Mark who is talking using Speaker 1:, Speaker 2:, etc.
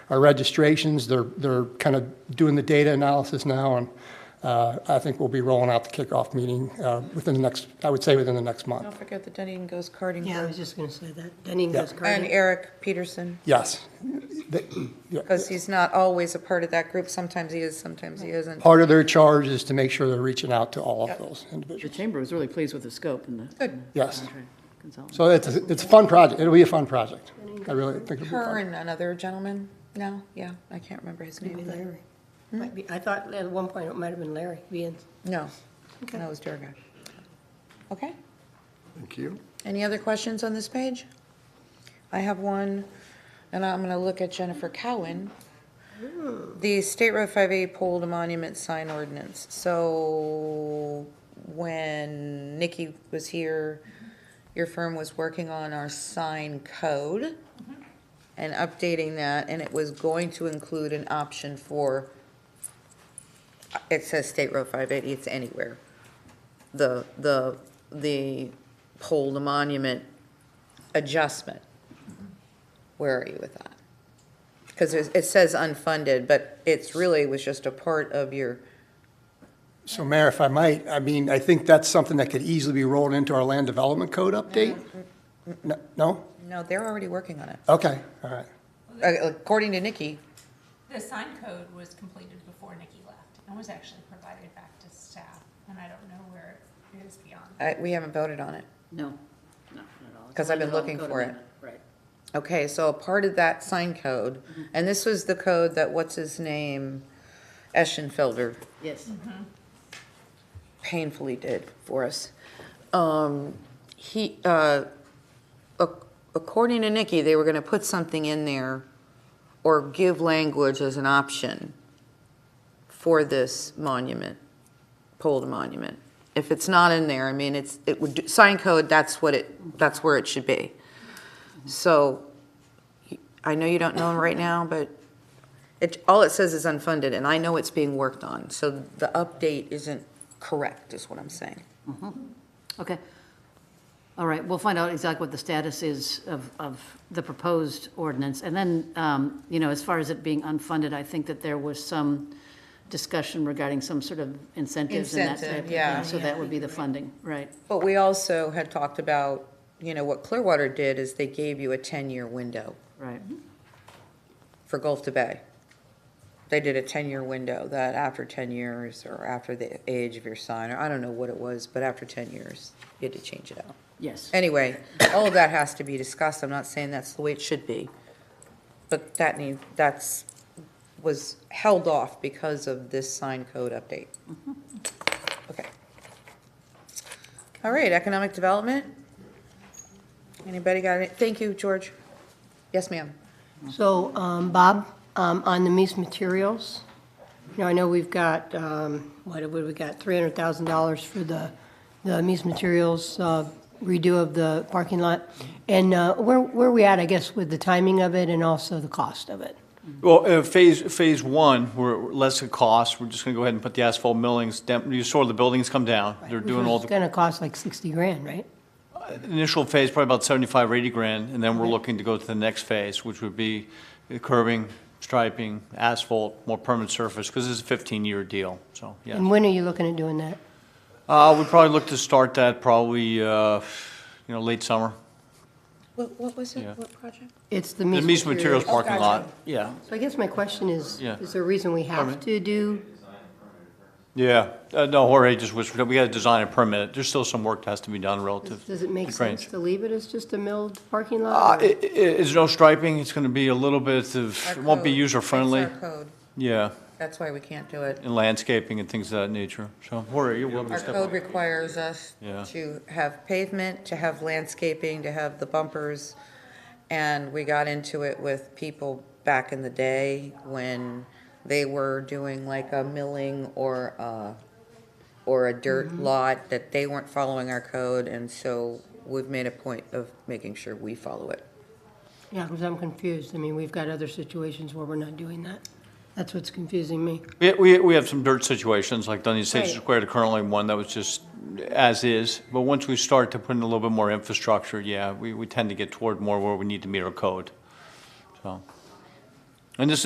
Speaker 1: our registrations. They're, they're kind of doing the data analysis now, and uh, I think we'll be rolling out the kickoff meeting uh, within the next, I would say within the next
Speaker 2: Don't
Speaker 1: month.
Speaker 2: forget the Dunedin Goes Karting
Speaker 3: Yeah, I
Speaker 2: Club.
Speaker 3: was just going to say that. Dunning
Speaker 1: Yeah.
Speaker 3: goes
Speaker 2: And
Speaker 3: karting.
Speaker 2: Eric Peterson,
Speaker 1: Yes. They- yeah.
Speaker 2: because he's not always a part of that group. Sometimes he is, sometimes he isn't.
Speaker 1: Part of their charge is to make sure they're reaching out to all of those
Speaker 4: The
Speaker 1: individuals.
Speaker 4: chamber was really pleased with the scope and the.
Speaker 2: Good.
Speaker 1: Yes.
Speaker 4: contract consultant.
Speaker 1: So it's, it's a fun project. It'll be a fun project. I really think it'll be
Speaker 2: Her
Speaker 1: fun.
Speaker 2: and another gentleman, no, yeah, I can't remember his
Speaker 3: Maybe
Speaker 2: name. but-
Speaker 3: Larry. Might be, I thought at one point it might have been Larry being.
Speaker 2: No,
Speaker 3: Okay.
Speaker 2: that was Durga. Okay,
Speaker 5: Thank you.
Speaker 2: any other questions on this page? I have one, and I'm gonna look at Jennifer Cowan. The State Road 5A pulled a monument sign ordinance, so when Nikki was here, your firm was working on our sign code and updating that, and it was going to include an option for, it says State Road 580, it's anywhere. The, the, the pole to monument adjustment. Where are you with that? Because it says unfunded, but it's really was just a part of your,
Speaker 1: So Mayor, if I might, I mean, I think that's something that could easily be rolled into our land development code update? No- No?
Speaker 2: no, they're already working on it.
Speaker 1: Okay, all right.
Speaker 2: Uh, According to Nikki,
Speaker 6: The sign code was completed before Nikki left and was actually provided back to staff, and I don't know where it is beyond.
Speaker 2: I- we haven't voted on it.
Speaker 4: No, no, not at all. It's
Speaker 2: 'Cause I've been
Speaker 4: only
Speaker 2: looking
Speaker 4: code
Speaker 2: for it.
Speaker 4: amendment, Right.
Speaker 2: Okay, so a part of that sign code, and this was the code that, what's his name, Eschenfelder
Speaker 4: Yes.
Speaker 2: Mm-hmm. painfully did for us. Um, He, uh, ac- according to Nikki, they were going to put something in there or give language as an option for this monument, pole to monument. If it's not in there, I mean, it's, it would, sign code, that's what it, that's where it should be. So I know you don't know him right now, but it, all it says is unfunded, and I know it's being worked on, so the update isn't correct, is what I'm saying.
Speaker 4: Okay. All right, we'll find out exactly what the status is of, of the proposed ordinance. And then, um, you know, as far as it being unfunded, I think that there was some discussion regarding some sort of incentives and that type of
Speaker 2: Incentive,
Speaker 4: thing.
Speaker 2: yeah.
Speaker 4: So that would be the funding, right?
Speaker 2: But we also had talked about, you know, what Clearwater did is they gave you a 10-year window
Speaker 4: Right.
Speaker 2: Mm-hmm. for Gulf to Bay. They did a 10-year window, that after 10 years, or after the age of your sign, or I don't know what it was, but after 10 years, you had to change it out.
Speaker 4: Yes.
Speaker 2: Anyway, all of that has to be discussed, I'm not saying that's the way it should be. But that need, that's, was held off because of this sign code update. Okay. All right, economic development? Anybody got it? Thank you, George. Yes, ma'am.
Speaker 3: So, um, Bob, um, on the Mies Materials, you know, I know we've got, um, what have we got, $300,000 for the, the Mies Materials uh, redo of the parking lot. And uh, where, where are we at, I guess, with the timing of it and also the cost of it?
Speaker 7: Well, uh, phase, phase one, we're we're less of cost, we're just gonna go ahead and put the asphalt millings, dem- you saw the buildings come down, they're doing all
Speaker 3: It's
Speaker 7: the,
Speaker 3: going to cost like 60 grand, right?
Speaker 7: initial phase probably about seventy-five or eighty grand, and then we're looking to go to the next phase, which would be curbing, striping, asphalt, more permanent surface, because it's a fifteen-year deal, so, yeah.
Speaker 3: And when are you looking at doing that?
Speaker 7: Uh, we'd probably look to start that probably, uh, you know, late summer.
Speaker 2: What, what was
Speaker 7: Yeah.
Speaker 2: it, what project?
Speaker 3: It's the
Speaker 7: The
Speaker 3: Mies
Speaker 7: Mies Materials parking
Speaker 3: Okay.
Speaker 7: lot, yeah.
Speaker 3: So I guess my question is,
Speaker 7: Yeah.
Speaker 3: is there a reason we have to do,
Speaker 7: Yeah, uh, no, Jorge just whispered, we gotta design a permit, there's still some work that has to be done relative.
Speaker 3: does it make
Speaker 7: to drainage.
Speaker 3: sense to leave it as just a milled parking
Speaker 7: Uh,
Speaker 3: lot? or-
Speaker 7: i- i- It's no striping, it's going to be a little bit of,
Speaker 2: Our
Speaker 7: it won't be
Speaker 2: code.
Speaker 7: user-friendly,
Speaker 2: That's our code.
Speaker 7: yeah,
Speaker 2: That's why we can't do it.
Speaker 7: and landscaping and things of that nature, so, Jorge, you're welcome to
Speaker 2: Our
Speaker 7: step
Speaker 2: code
Speaker 7: up.
Speaker 2: requires us
Speaker 7: Yeah.
Speaker 2: to have pavement, to have landscaping, to have the bumpers. And we got into it with people back in the day when they were doing like a milling or a, or a dirt lot, that they weren't following our code, and so we've made a point of making sure we follow it.
Speaker 3: Yeah, because I'm confused. I mean, we've got other situations where we're not doing that. That's what's confusing me.
Speaker 7: We- We, we have some dirt situations, like Dunedin Station
Speaker 3: Right.
Speaker 7: Square, the currently one that was just as is, but once we start to put in a little bit more infrastructure, yeah, we, we tend to get toward more where we need to meet our code, so. And this